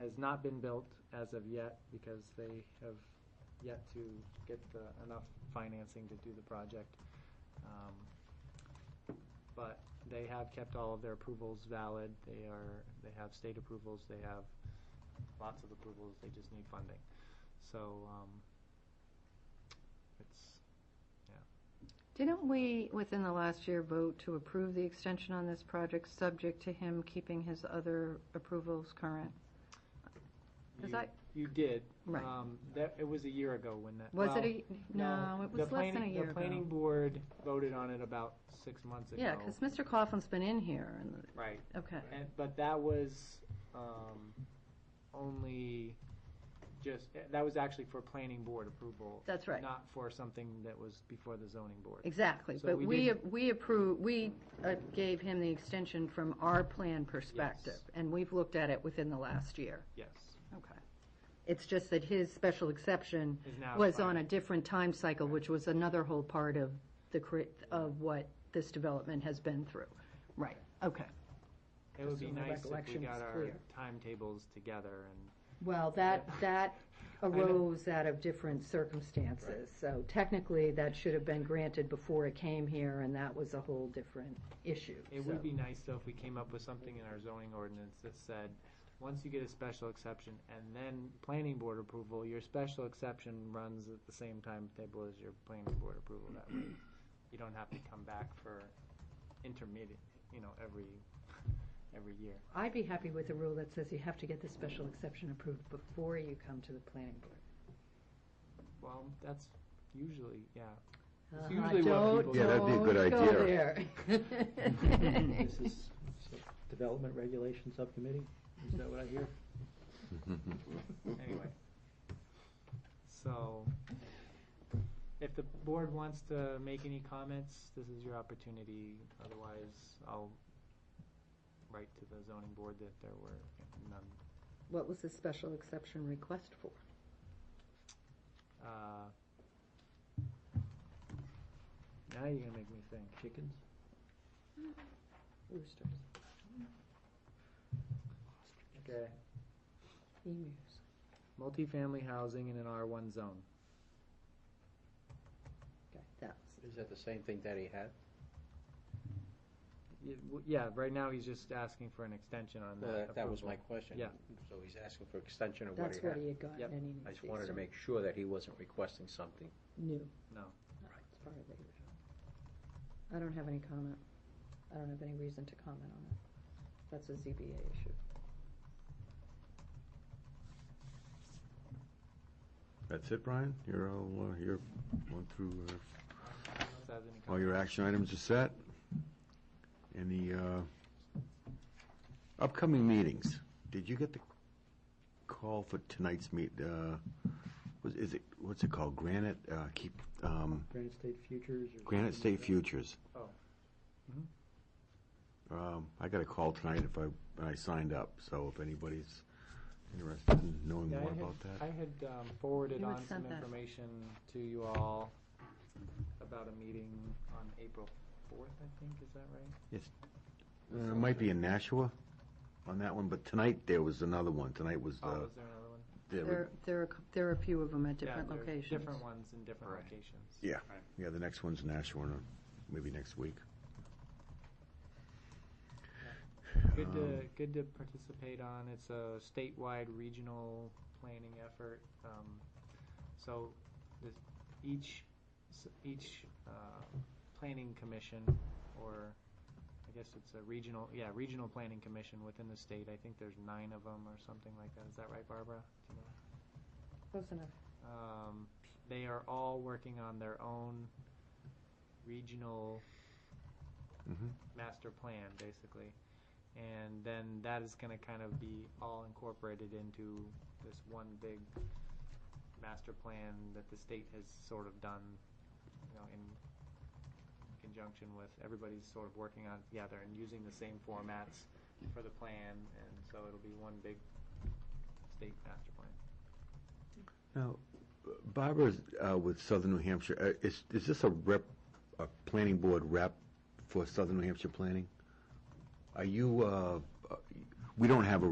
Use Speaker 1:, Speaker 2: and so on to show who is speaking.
Speaker 1: has not been built as of yet because they have yet to get the, enough financing to do the project. Um, But they have kept all of their approvals valid. They are, they have state approvals, they have lots of approvals, they just need funding. So, um, it's,
Speaker 2: Didn't we, within the last year, vote to approve the extension on this project, subject to him keeping his other approvals current? Is
Speaker 1: you,
Speaker 2: that-
Speaker 1: you did.
Speaker 2: Right.
Speaker 1: Um, That, it was a year ago when that.
Speaker 2: Was
Speaker 1: well,
Speaker 2: it a, no, it
Speaker 1: the
Speaker 2: was less than a
Speaker 1: planning-
Speaker 2: year
Speaker 1: The planning
Speaker 2: ago.
Speaker 1: board voted on it about six months ago.
Speaker 2: Yeah, because Mr. Coughlin's been in here, and,
Speaker 1: Right,
Speaker 2: okay,
Speaker 1: and, but that was, um, only just, eh, that was actually for planning board approval.
Speaker 2: that's right,
Speaker 1: Not for something that was before the zoning board.
Speaker 2: exactly.
Speaker 1: So
Speaker 2: But
Speaker 1: we
Speaker 2: we, we approve, we uh, gave him the extension from our plan perspective, and we've looked at it within the last year.
Speaker 1: Yes,
Speaker 2: Okay. It's just that his special exception
Speaker 1: is now.
Speaker 2: was on a
Speaker 1: expired.
Speaker 2: different time cycle, which was another whole part of the, cre- of what this development has been through. Right, okay.
Speaker 1: It would be
Speaker 3: Just so my
Speaker 1: nice if we
Speaker 3: recollection
Speaker 1: got
Speaker 3: is
Speaker 1: our
Speaker 3: clear.
Speaker 1: timetables together and
Speaker 2: Well, that, that
Speaker 1: know.
Speaker 2: arose out of different circumstances. So technically, that should have been granted before it came here, and that was a whole different issue.
Speaker 1: It
Speaker 2: so.
Speaker 1: would be nice though if we came up with something in our zoning ordinance that said, once you get a special exception and then planning board approval, your special exception runs at the same timetable as your planning board approval. That way, you don't have to come back for intermediate, you know, every, every year.
Speaker 2: I'd be happy with a rule that says you have to get the special exception approved before you come to the planning board.
Speaker 1: Well, that's usually, yeah. It's
Speaker 2: Uh-huh,
Speaker 1: usually what
Speaker 2: don't-
Speaker 1: people-
Speaker 4: Yeah, that'd be a good
Speaker 2: don't go there.
Speaker 3: This is Development Regulation Subcommittee, is that what I hear?
Speaker 1: Anyway. So, if the board wants to make any comments, this is your opportunity. Otherwise, I'll write to the zoning board that there were none.
Speaker 2: What was the special exception request for?
Speaker 1: Uh, Now you're gonna make me think.
Speaker 3: Chickens?
Speaker 2: Roosters.
Speaker 1: Okay.
Speaker 2: Emus.
Speaker 1: Multifamily housing in an R1 zone.
Speaker 2: Okay, that's,
Speaker 5: Is that the same thing that he had?
Speaker 1: Y- w- Yeah, right now he's just asking for an extension on
Speaker 5: Uh,
Speaker 1: that
Speaker 5: That was my
Speaker 1: approval.
Speaker 5: question.
Speaker 1: Yeah.
Speaker 5: So he's asking for extension of what he
Speaker 2: that's what
Speaker 5: had.
Speaker 2: he had gotten
Speaker 1: Yep.
Speaker 2: and he needs
Speaker 5: I just
Speaker 2: the
Speaker 5: wanted to
Speaker 2: extra-
Speaker 5: make sure that he wasn't requesting something.
Speaker 2: New.
Speaker 1: No.
Speaker 2: It's part of the original. I don't have any comment. I don't have any reason to comment on it. That's a ZBA issue.
Speaker 4: That's it, Brian? You're all, uh, you're going through, uh,
Speaker 1: Does have any
Speaker 4: all your
Speaker 1: comments?
Speaker 4: action items are set? Any uh, upcoming meetings? Did you get the call for tonight's meet, uh, was, is it, what's it called? Granite, uh, keep, um,
Speaker 3: Granite State Futures or?
Speaker 4: Granite
Speaker 3: something
Speaker 4: State
Speaker 3: like
Speaker 4: Futures?
Speaker 1: Oh. Mhm.
Speaker 4: Um, I got a call tonight if I, I signed up, so if anybody's interested in knowing
Speaker 1: Yeah, I
Speaker 4: more
Speaker 1: had-
Speaker 4: about that.
Speaker 1: I had um, forwarded
Speaker 2: You had
Speaker 1: on some
Speaker 2: sent that.
Speaker 1: information to you all about a meeting on April fourth, I think, is that right?
Speaker 4: Uh, It might be in Nashua on that one, but tonight there was another one. Tonight was,
Speaker 1: Oh,
Speaker 4: uh,
Speaker 1: was there another one?
Speaker 4: there were-
Speaker 2: There, there are, there are a few of them at
Speaker 1: Yeah,
Speaker 2: different
Speaker 1: there are
Speaker 2: locations.
Speaker 1: Different ones in different
Speaker 5: Right.
Speaker 1: locations.
Speaker 4: Yeah. yeah, the next one's Nashua, uh, maybe next week.
Speaker 1: Good to,
Speaker 4: Um,
Speaker 1: good to participate on. It's a statewide regional planning effort. Um, So this, each, s- each uh, planning commission, or I guess it's a regional, yeah, regional planning commission within the state. I think there's nine of them or something like that. Is that right, Barbara? Do you know?
Speaker 2: Close enough.
Speaker 1: Um, they are all working on their own regional
Speaker 4: Mhm.
Speaker 1: master plan, basically. And then that is going to kind of be all incorporated into this one big master plan that the state has sort of done, you know, in conjunction with everybody's sort of working on it together and using the same formats for the plan. And so it'll be one big state master plan.
Speaker 4: Now, Barbara uh, with Southern New Hampshire, uh, is, is this a rep, a planning board rep for Southern New Hampshire Planning? Are you, uh, uh, we don't have a